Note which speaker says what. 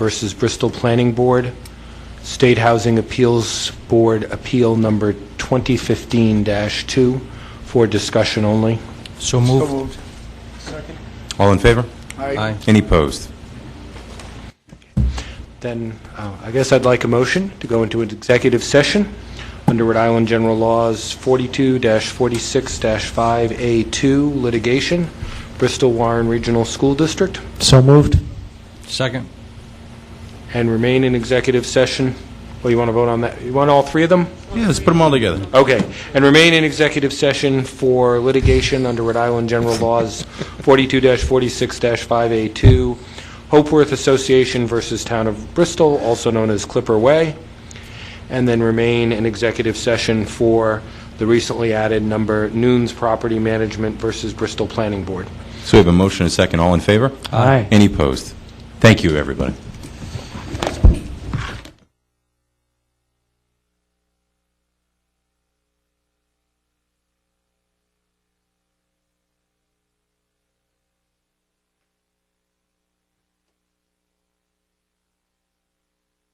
Speaker 1: versus Bristol Planning Board, State Housing Appeals Board Appeal Number 2015-2, for discussion only.
Speaker 2: So moved.
Speaker 3: All in favor?
Speaker 2: Aye.
Speaker 3: Any opposed?
Speaker 1: Then, uh, I guess I'd like a motion to go into an executive session under Rhode Island General Laws 42-46-5A2 litigation, Bristol Warren Regional School District,
Speaker 4: So moved.
Speaker 2: Second.
Speaker 1: and remain in executive session. Well, you want to vote on that? You want all three of them?
Speaker 3: Yeah, let's put them all together.
Speaker 1: Okay. And remain in executive session for litigation under Rhode Island General Laws 42-46-5A2, Hopeworth Association versus Town of Bristol, also known as Clipper Way, and then remain in executive session for the recently added number Noon's Property Management versus Bristol Planning Board.
Speaker 3: So we have a motion and a second. All in favor?
Speaker 4: Aye.
Speaker 3: Any opposed? Thank you, everybody.